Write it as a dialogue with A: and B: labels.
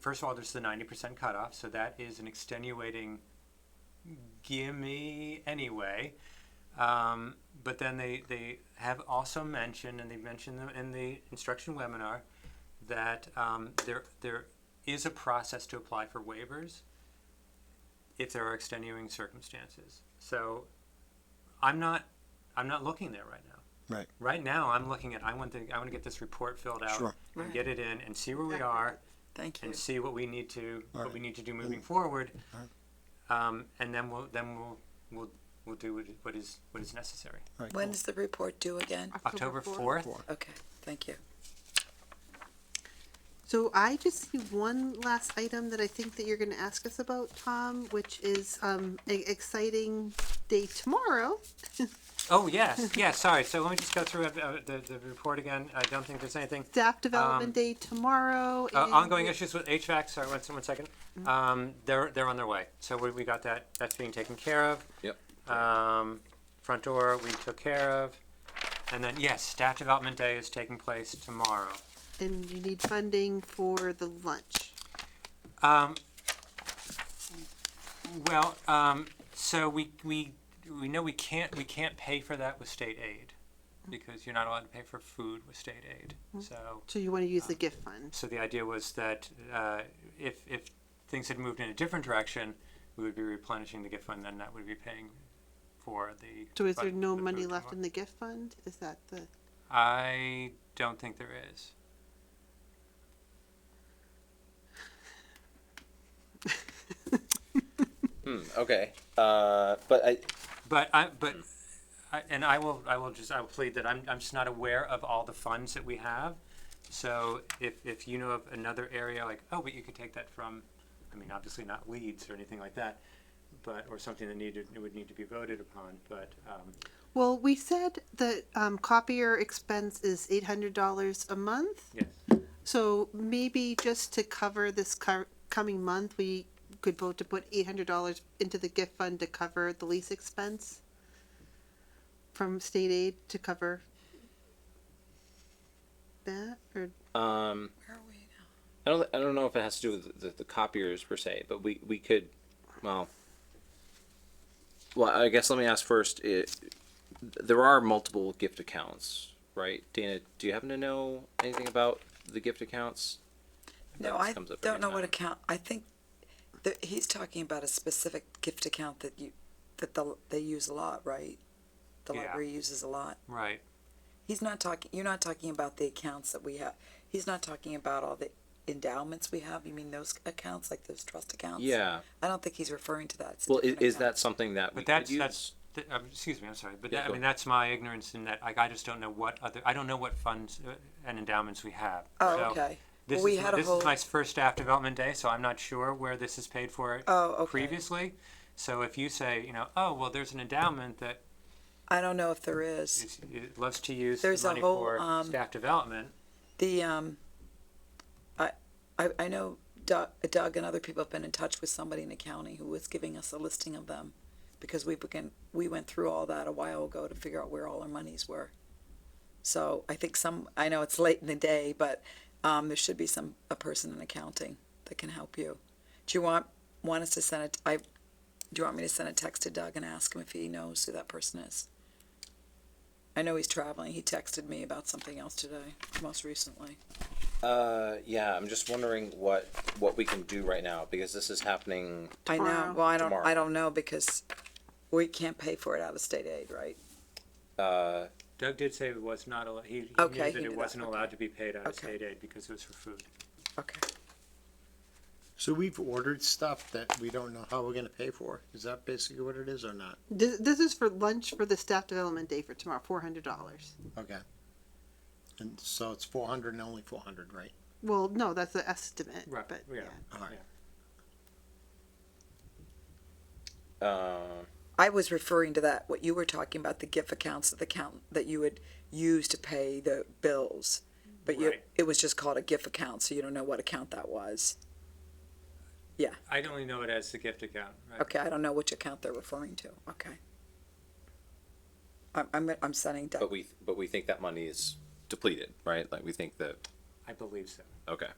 A: first of all, there's the 90% cutoff, so that is an extenuating gimme anyway. Um, but then they, they have also mentioned, and they mentioned them in the instruction webinar, that um, there there is a process to apply for waivers if there are extenuating circumstances. So I'm not I'm not looking there right now.
B: Right.
A: Right now, I'm looking at I want to I want to get this report filled out
B: Sure.
A: and
C: Right.
A: get it in and see where we are
C: Thank you.
A: and see what we need to what
B: Alright.
A: we need to do moving forward,
B: Alright.
A: um, and then we'll then we'll we'll we'll do what, what is what is necessary.
B: All right,
C: When
B: cool.
C: is the report due again?
A: October fourth.
B: Four.
C: Okay, thank you.
D: So I just see one last item that I think that you're gonna ask us about, Tom, which is, um, an exciting day tomorrow.
A: Oh yes, yeah. Sorry. So let me just go through uh, uh, the the report again. I don't think there's anything.
D: Staff
A: Um,
D: Development Day tomorrow.
A: Uh,
D: and
A: ongoing
D: we-
A: issues with HVAC, sorry, one, one second. Um, they're, they're on their way. So we, we got that, that's being taken care of.
E: Yep.
A: Um, front door, we took care of. And then, yes, staff development day is taking place tomorrow.
D: And you need funding for the lunch.
A: Um, well, um, so we, we, we know we can't, we can't pay for that with state aid because you're not allowed to pay for food with state aid.
D: Mm-hmm.
A: So
D: So you wanna use the
A: Uh,
D: gift fund.
A: So the idea was that uh, if, if things had moved in a different direction, we would be replenishing the gift fund, then that would be paying for the.
D: So is
A: fun-
D: there no
A: the
D: money
A: food
D: left
A: tomorrow.
D: in the gift fund? Is that the,
A: I don't think there is.
E: Hmm, okay. Uh, but I,
A: But I, but, I- and I will, I will just, I will plead that I'm, I'm just not aware of all the funds that we have. So if, if you know of another area, like, oh, but you could take that from, I mean, obviously not Leeds or anything like that, but, or something that needed, would need to be voted upon, but, um,
D: well, we said that, um, copier expense is eight hundred dollars a month.
A: yes.
D: So maybe just to cover this cur- coming month, we could vote to put eight hundred dollars into the gift fund to cover the lease expense from state aid to cover that, or,
E: um,
C: Where are we now?
E: I don't, I don't know if it has to do with the, the copiers per se, but we, we could, well, well, I guess let me ask first. It, there are multiple gift accounts, right? Dana, do you happen to know anything about the gift accounts?
C: No,
E: That
C: I
E: comes up
C: don't
E: every
C: know what
E: time.
C: account, I think that he's talking about a specific gift account that you, that the, they use a lot, right? The
A: Yeah.
C: library uses a lot.
A: Right.
C: He's not talking, you're not talking about the accounts that we have. He's not talking about all the endowments we have. You mean those accounts, like those trust accounts?
E: Yeah.
C: I don't think he's referring to that. It's a
E: Well, is,
C: different
E: is
C: account.
E: that something that we
A: But that's
E: could use?
A: that's. th- um, excuse me, I'm sorry, but
E: Yeah,
A: that, I
E: go.
A: mean that's my ignorance in that like, I just don't know what other I don't know what funds uh, and endowments we have.
C: Oh,
A: So
C: okay.
A: This,
C: Well, we
A: is,
C: had a
A: this
C: whole-
A: is my first staff development day, so I'm not sure where this is paid for
C: Oh, okay.
A: previously. So if you say, you know, oh well, there's an endowment that
C: I don't know if there is.
A: is, it loves to use the
C: There's a
A: money
C: whole,
A: for
C: um,
A: staff development,
C: The um, I I, I know Doug, Doug and other people have been in touch with somebody in the county who was giving us a listing of them, because we began we went through all that a while ago to figure out where all our monies were. So I think some I know it's late in the day, but um, there should be some a person in accounting that can help you. Do you want want us to send it? I do you want me to send a text to Doug and ask him if he knows who that person is? I know he's traveling. He texted me about something else today, most recently.
E: Uh, yeah, I'm just wondering what, what we can do right now, because this is happening
C: I know.
D: Tomorrow.
C: Well, I don't.
E: Tomorrow.
C: I don't know because we can't pay for it out of state aid, right?
E: Uh,
A: Doug did say it was not allowed. He, he
C: Okay,
A: knew that
C: he knew
A: it
C: that,
A: wasn't
C: okay.
A: allowed to be paid out of
C: Okay.
A: state aid because it was for food.
C: Okay.
B: So we've ordered stuff that we don't know how we're gonna pay for. Is that basically what it is or not?
D: this, this is for lunch for the staff development day for tomorrow, four hundred dollars.
B: Okay. And so it's four hundred and only four hundred, right?
D: Well, no, that's the estimate,
A: Right,
D: but,
A: yeah.
D: yeah.
B: All right.
E: uh,
C: I was referring to that what you were talking about the gift accounts that the count that you would use to pay the bills, but you,
A: Right.
C: it was just called a gift account, so you don't know what account that was.
A: I only know it as the gift account. Right?
C: Okay, I don't know which account they're referring to. Okay. I'm I'm, I'm sending. Doug.
E: but we, but we think that money is depleted, right? Like, we think that,
A: I believe so.
E: okay.